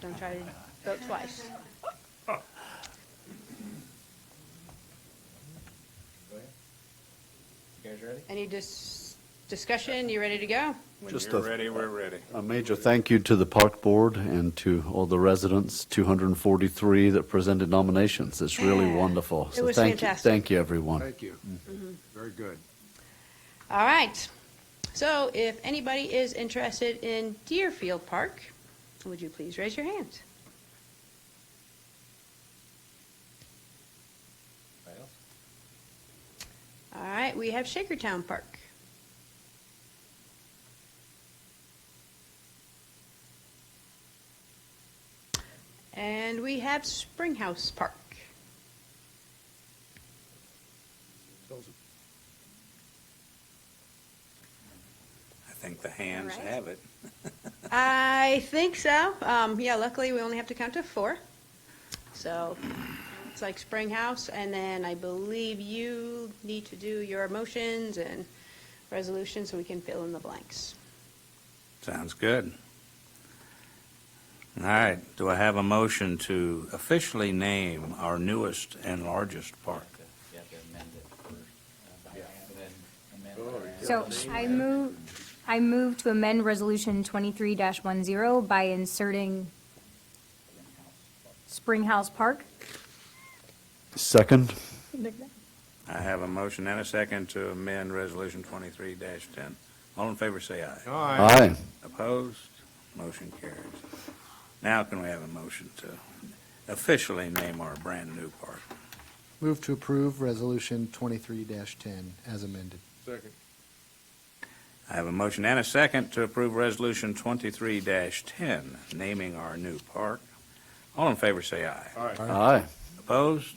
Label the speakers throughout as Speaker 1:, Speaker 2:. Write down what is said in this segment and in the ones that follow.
Speaker 1: Don't try to vote twice.
Speaker 2: Go ahead. You guys ready?
Speaker 1: Any dis- discussion? You ready to go?
Speaker 3: When
Speaker 4: Just
Speaker 3: you're
Speaker 4: a-
Speaker 3: ready, we're ready.
Speaker 4: A major thank you to the Park Board and to all the residents, 243 that presented nominations. It's really
Speaker 1: Yeah.
Speaker 4: wonderful.
Speaker 1: It
Speaker 4: So
Speaker 1: was
Speaker 4: thank you-
Speaker 1: fantastic.
Speaker 4: Thank you, everyone.
Speaker 5: Thank you. Very good.
Speaker 1: All right. So if anybody is interested in Deerfield Park, would you please raise your hand?
Speaker 2: Anybody else?
Speaker 1: All right, we have Shakertown Park. And we have Springhouse Park.
Speaker 5: Those-
Speaker 3: I think the hands
Speaker 1: All right.
Speaker 3: have it.
Speaker 1: I think so. Um, yeah, luckily we only have to count to four. So it's like Springhouse, and then I believe you need to do your motions and resolutions so we can fill in the blanks.
Speaker 3: Sounds good. All right, do I have a motion to officially name our newest and largest park?
Speaker 2: You have to amend it first, uh, by hand, and then amend
Speaker 3: Oh,
Speaker 2: by hand.
Speaker 6: So I move, I move to amend Resolution 23-10 by inserting Springhouse Park.
Speaker 4: Second?
Speaker 3: I have a motion and a second to amend Resolution 23-10. All in favor, say aye.
Speaker 4: Aye.
Speaker 3: Opposed? Motion carries. Now can we have a motion to officially name our brand-new park?
Speaker 7: Move to approve Resolution 23-10 as amended.
Speaker 5: Second.
Speaker 3: I have a motion and a second to approve Resolution 23-10, naming our new park. All in favor, say aye.
Speaker 5: All right.
Speaker 4: Aye.
Speaker 3: Opposed?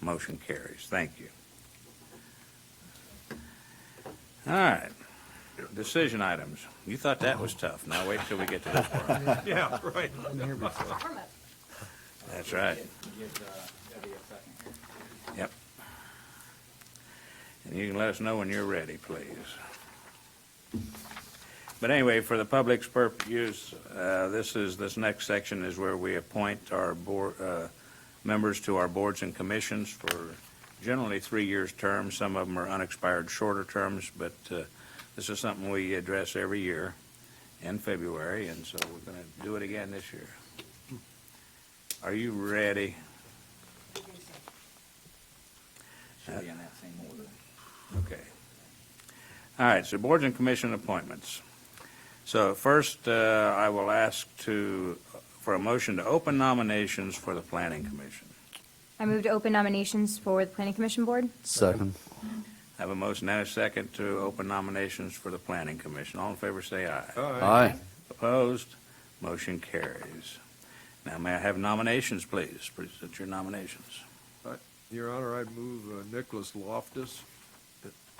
Speaker 3: Motion carries. Thank you. All right. Decision items. You thought that was tough. Now wait till we get to this part.
Speaker 5: Yeah, right.
Speaker 3: That's right.
Speaker 2: Give, uh, Debbie a second here.
Speaker 3: And you can let us know when you're ready, please. But anyway, for the public's purpose use, uh, this is, this next section is where we appoint our board, uh, members to our boards and commissions for generally three years terms. Some of them are unexpired shorter terms, but, uh, this is something we address every year in February, and so we're gonna do it again this year. Are you ready?
Speaker 2: Should be in that same order.
Speaker 3: Okay. All right, so boards and commission appointments. So first, uh, I will ask to, for a motion to open nominations for the planning commission.
Speaker 6: I move to open nominations for the Planning Commission Board.
Speaker 4: Second?
Speaker 3: I Have a motion and a second to open nominations for the planning commission. All in favor, say aye.
Speaker 4: Aye.
Speaker 3: Opposed? Motion carries. Now, may I have nominations, please? Present your nominations.
Speaker 5: Your Honor, I'd move uh, Nicholas Loftus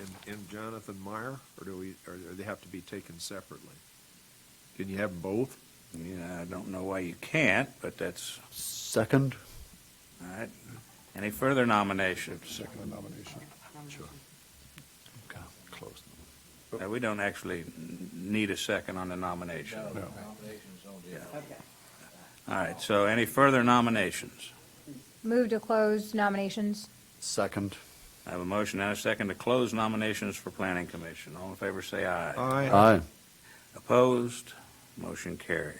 Speaker 5: and, and Jonathan Meyer, or do we, or do they have to be taken separately? Can you have 'em both?
Speaker 3: Yeah, I don't know why you can't, but that's,
Speaker 4: Second?
Speaker 3: all right. Any further nominations?
Speaker 5: Second nomination. Sure.
Speaker 4: Close.
Speaker 3: Uh, We don't actually n- need a second on the nomination.
Speaker 2: No, nominations don't do that.
Speaker 3: All right, so any further nominations?
Speaker 6: Move to close nominations.
Speaker 4: Second?
Speaker 3: I have a motion and a second to close nominations for Planning Commission. All in favor, say aye.
Speaker 5: Aye.
Speaker 4: Aye.
Speaker 3: Opposed? Motion carries.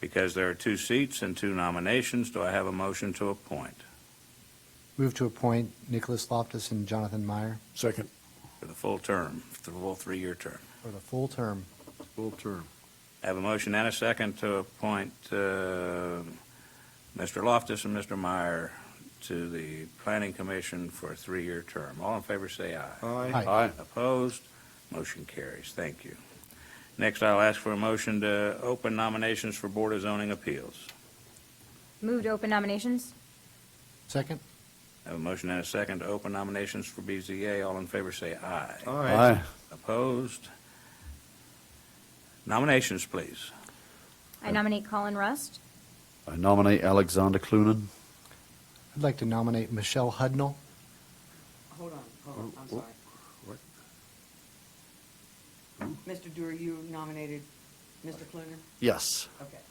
Speaker 3: Because there are two seats and two nominations, do I have a motion to appoint?
Speaker 7: Move to appoint Nicholas Loftus and Jonathan Meyer
Speaker 5: Second.
Speaker 3: For the full term, for the full three-year term.
Speaker 7: for the full term.
Speaker 5: Full term.
Speaker 3: I have a motion and a second to appoint uh, Mr. Loftus and Mr. Meyer to the Planning Commission for a three-year term. All in favor, say aye.
Speaker 5: Aye.
Speaker 4: Aye.
Speaker 3: Opposed? Motion carries. Thank you. Next, I'll ask for a motion to open nominations for Board of Zoning Appeals.
Speaker 6: Move to open nominations.
Speaker 7: Second?
Speaker 3: I have a motion and a second to open nominations for BZA. All in favor, say aye.
Speaker 4: Aye.
Speaker 3: Opposed? Nominations, please.
Speaker 6: I nominate Colin Rust.
Speaker 4: I nominate Alexander Clunin.
Speaker 7: I'd like to nominate Michelle Hudnall.
Speaker 8: Hold on, hold on, I'm sorry.
Speaker 5: what?
Speaker 8: Mr. Dewar, you nominated Mr. Cluner?
Speaker 4: Yes.
Speaker 8: Okay.